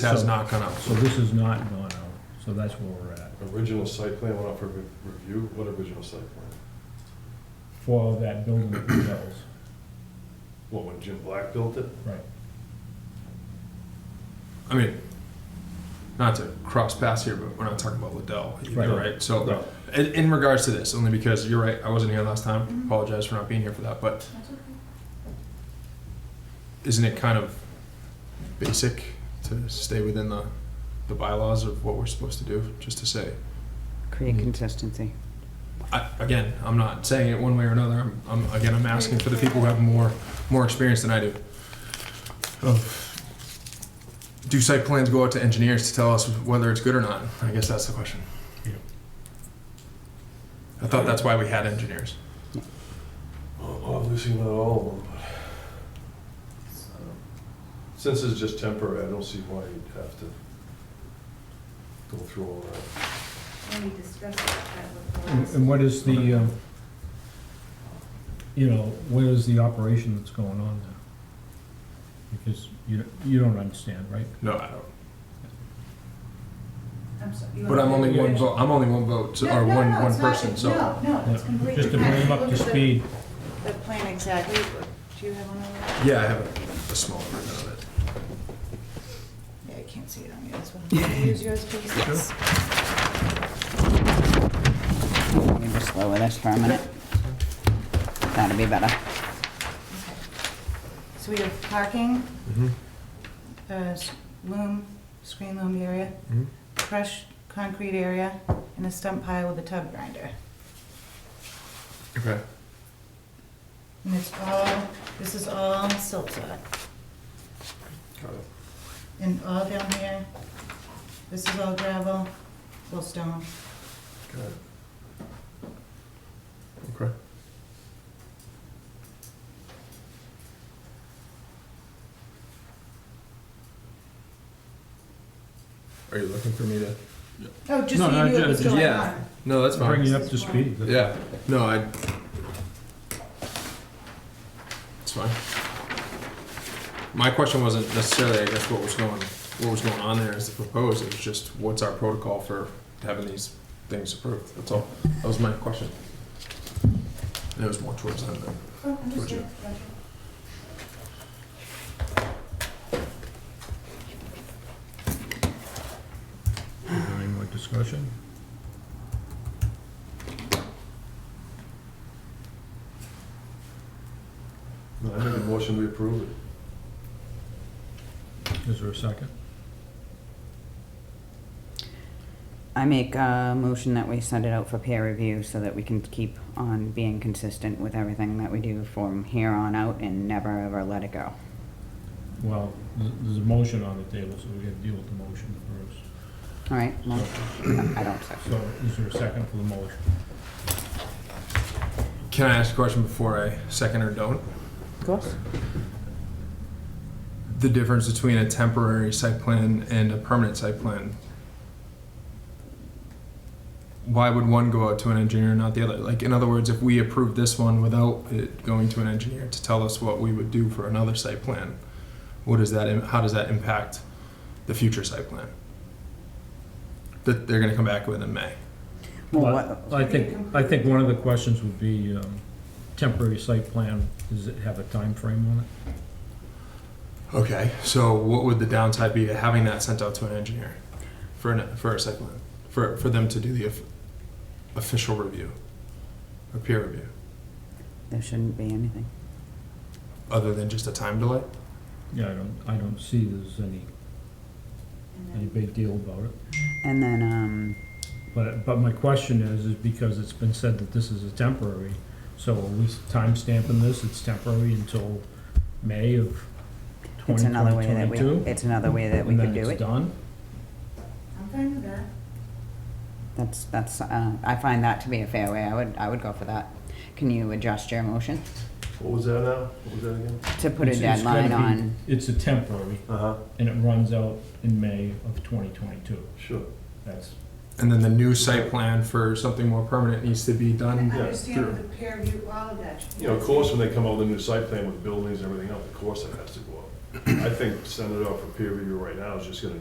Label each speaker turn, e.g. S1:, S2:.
S1: has not gone out.
S2: So this is not gone out, so that's where we're at,
S3: Original site plan went out for re- review, what original site plan?
S2: for that building that we built,
S3: What, when Jim Black built it?
S2: right.
S1: I mean, not to cross paths here, but we're not talking about Liddell either,
S2: Right.
S1: right? So,
S3: No.
S1: in, in regards to this, only because you're right, I wasn't here last time. Apologize for not being here for that, but isn't it kind of basic to stay within the, the bylaws of what we're supposed to do? Just to say,
S4: Create consistency.
S1: I, again, I'm not saying it one way or another. I'm, I'm again, I'm asking for the people who have more more experience than I do. Of do site plans go out to engineers to tell us whether it's good or not? I guess that's the question.
S2: Yeah.
S1: I thought that's why we had engineers.
S3: Well, Obviously not all of them, but. Since it's just temporary, I don't see why you'd have to go through all that.
S5: And we discussed that
S2: And
S5: before.
S2: and what is the, um, you know, what is the operation that's going on now? Because you, you don't understand, right?
S1: No, I don't.
S5: I'm so- you
S1: But
S5: want
S1: I'm
S5: me
S1: only
S5: to do
S1: one
S5: it?
S1: vote. I'm only one vote so-
S5: No,
S1: or
S5: no,
S1: one
S5: no,
S1: one
S5: it's not-
S1: person. so
S5: No, no, it's completely.
S2: Just to bring them up
S5: Look
S2: to
S5: at the-
S2: speed,
S5: The plan exactly, do you have one of those?
S1: yeah, I have a, a small amount of it.
S5: Yeah, I can't see it on yours. one. Can you Use yours, please.
S4: Yes. Let me just lower this for a minute. That'll be better.
S5: Okay. So we have parking,
S2: Mm-hmm.
S5: uh, s- loom, screen loom area,
S2: Mm-hmm.
S1: Mhm.
S5: crushed concrete area, and a stump pile with a tub grinder.
S1: Okay.
S5: And it's all, this is all silt sock.
S1: Got it.
S5: And all down here, this is all gravel, full stone.
S1: Got it. Okay. Are you looking for me to?
S5: Oh, just
S2: No,
S5: so
S2: no,
S5: you knew it was
S2: just-
S5: going
S1: yeah.
S5: on.
S1: No, that's
S2: bring
S1: fine.
S2: it up to speed.
S1: Yeah, no, I. It's fine. My question wasn't necessarily, I guess, what was going, what was going on there as the proposed, it was just what's our protocol for having these things approved, that's all. That was my question. And it was more towards that, but.
S5: Oh,
S1: Roger.
S5: understood, Roger.
S2: Any more discussion?
S3: No, I make a motion, we approve it.
S2: Is there a second?
S4: I make a motion that we send it out for peer review so that we can keep on being consistent with everything that we do from here on out and never ever let it go.
S2: Well, th- there's a motion on the table, so we gotta deal with the motion first.
S4: All right, well, I don't second.
S2: So is there a second for the motion?
S1: Can I ask a question before I second or don't?
S4: Of course.
S1: The difference between a temporary site plan and a permanent site plan? Why would one go out to an engineer and not the other? Like, in other words, if we approve this one without it going to an engineer to tell us what we would do for another site plan, what is that, im- how does that impact the future site plan? That they're gonna come back with in May.
S4: Well,
S2: Well,
S4: what-
S2: I think, I think one of the questions would be, um, temporary site plan, does it have a time frame on it?
S1: Okay, so what would the downside be to having that sent out to an engineer for an, for a site plan for for them to do the of- official review, a peer review,
S4: There shouldn't be anything.
S1: other than just a time delay?
S2: Yeah, I don't, I don't see there's any,
S5: And
S2: any
S5: then-
S2: big deal about it.
S4: And then, um,
S2: But, but my question is, is because it's been said that this is a temporary, so are we timestamping this, it's temporary until May of
S4: it's
S2: twenty
S4: another way that we,
S2: twenty-two?
S4: it's another way that we could
S2: And
S4: do
S2: then it's
S4: it.
S2: done?
S5: I'm fine with that.
S4: That's, that's, uh, I find that to be a fair way. I would, I would go for that. Can you adjust your motion
S3: What was that now? What was that again?
S4: to put a
S2: It's- it's gotta
S4: deadline
S2: be-
S4: on?
S2: It's a temporary,
S3: Uh-huh,
S2: and it runs out in May of twenty twenty-two,
S3: sure.
S2: that's,
S1: And then the new site plan for something more permanent needs to be
S5: And
S1: done.
S5: I
S3: yeah,
S5: understand
S1: true.
S5: the peer review, all of that.
S3: You know, of course, when they come out with a new site plan with buildings and everything else, of course it has to go up. I think sending it out for peer review right now is just gonna